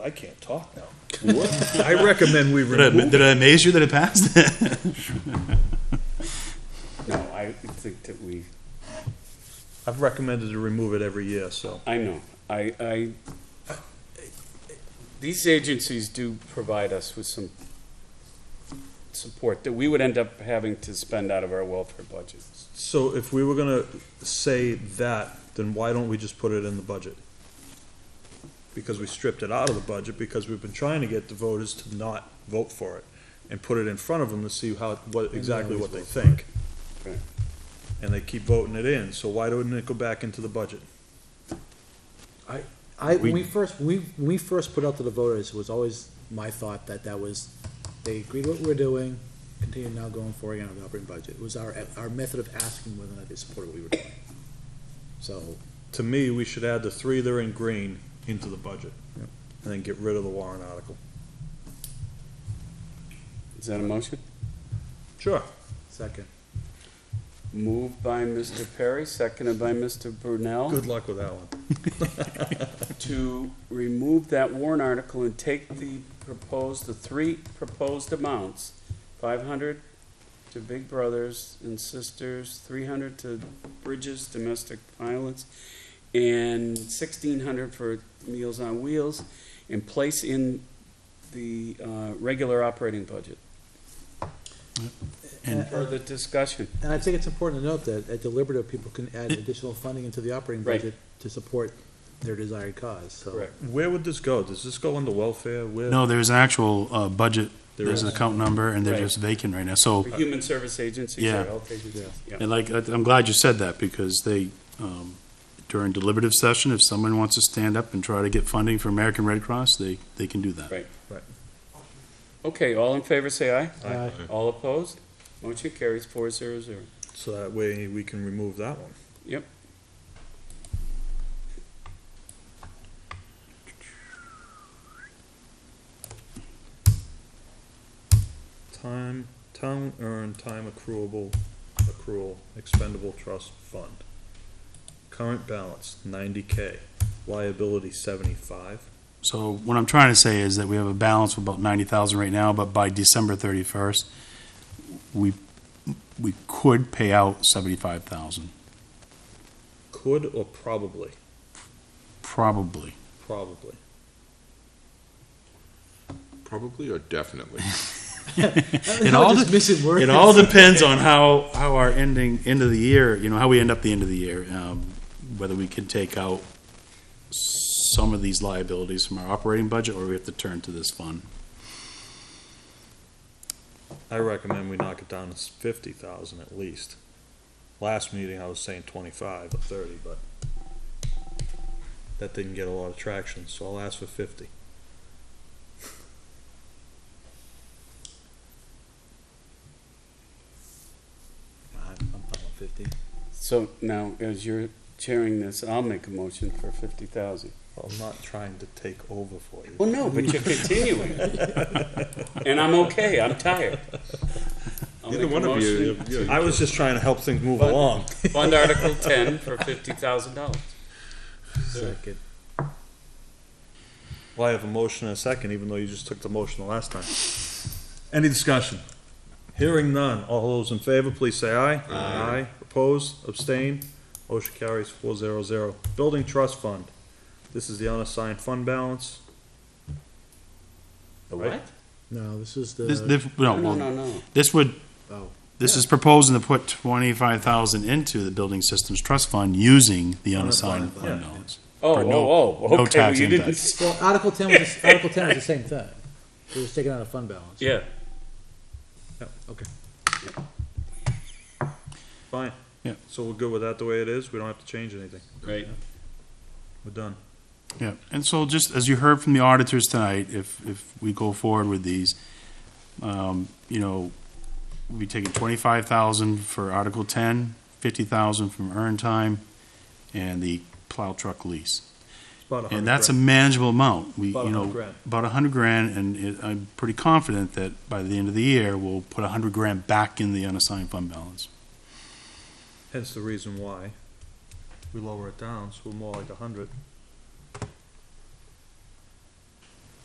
I can't talk now. I recommend we Did I, remove, did I amaze you that it passed? No, I think that we, I've recommended to remove it every year, so. I know, I, I, these agencies do provide us with some support that we would end up having to spend out of our welfare budgets. So if we were gonna say that, then why don't we just put it in the budget? Because we stripped it out of the budget, because we've been trying to get the voters to not vote for it, and put it in front of them to see how, what, exactly what they think. Right. And they keep voting it in, so why don't it go back into the budget? I, when we first, when we, when we first put out to the voters, it was always my thought that that was, they agreed what we were doing, continue now going forward again on the operating budget. It was our, our method of asking whether or not they supported what we were doing. So, To me, we should add the three that are in green into the budget, and then get rid of the warrant article. Is that a motion? Sure. second, Moved by Mr. Perry, seconded by Mr. Brunel, Good luck with that one. to remove that warrant article and take the proposed, the three proposed amounts, five hundred to Big Brothers and Sisters, three hundred to Bridges Domestic Violence, and sixteen hundred for Meals on Wheels, and place in the, uh, regular operating budget. And- Further discussion. and I think it's important to note that at deliberative, people can add additional funding into the operating Right. budget to support their desired cause, so. Correct. Where would this go? Does this go under welfare? Where? No, there's an actual, uh, budget, There there's an is. account number, and they're Right. just vacant right now, so, For human service agencies Yeah. or health agencies. Yeah. and like, I- I'm glad you said that, because they, um, during deliberative session, if someone wants to stand up and try to get funding for American Red Cross, they, they can do that. Right. Okay, all in favor, say aye. Aye. All opposed? Motion carries four zero zero. So that way we can remove that one. Yep. Time, town earned, time accruable, accrual, expendable trust fund. Current balance ninety K, liability seventy-five. So what I'm trying to say is that we have a balance of about ninety thousand right now, but by December thirty-first, we, we could pay out seventy-five thousand, Could or probably, probably. probably. Probably or definitely. It all, Just de- missing words. it all depends on how, how our ending, end of the year, you know, how we end up the end of the year. um, Whether we can take out some of these liabilities from our operating budget, or we have to turn to this fund. I recommend we knock it down to fifty thousand at least. Last meeting, I was saying twenty-five or thirty, but that didn't get a lot of traction, so I'll ask for fifty. I'm, I'm fine with fifty. So now, as you're chairing this, I'll make a motion for fifty thousand. I'm not trying to take over for you. Well, no, but you're continuing. And I'm okay, I'm tired. I'll Either make a one of you, motion. you- I was just trying to help things move But- along. Fund Article ten for fifty thousand dollars. Second, Well, I have a motion and a second, even though you just took the motion the last time. Any discussion? Hearing none, all those in favor, please say aye. Aye. Opposed, abstain, motion carries four zero zero. Building Trust Fund, this is the unassigned fund balance. The Right. what? no, this is This, the, this- No, no, no, no, well, no. this would, oh, this is proposing to put twenty-five thousand into the Building Systems Trust Fund using the unassigned yeah. fund balance. Oh, Or no- oh, oh, no okay, well, tax you didn't, impact. s- well, Article ten was, Article ten was the same thing. It was taken out of fund balance. yeah. Okay. Fine. Yeah. So we're good with that the way it is, we don't have to change anything, Right. we're done. Yeah, and so just as you heard from the auditors tonight, if, if we go forward with these, um, you know, we'll be taking twenty-five thousand for Article ten, fifty thousand from earn time, and the plow truck lease. It's about a hundred And that's a grand. manageable amount, we, About a you hundred know, grand. about a hundred grand, and it, I'm pretty confident that by the end of the year, we'll put a hundred grand back in the unassigned fund balance. Hence the reason why we lower it down, so we're more like a hundred.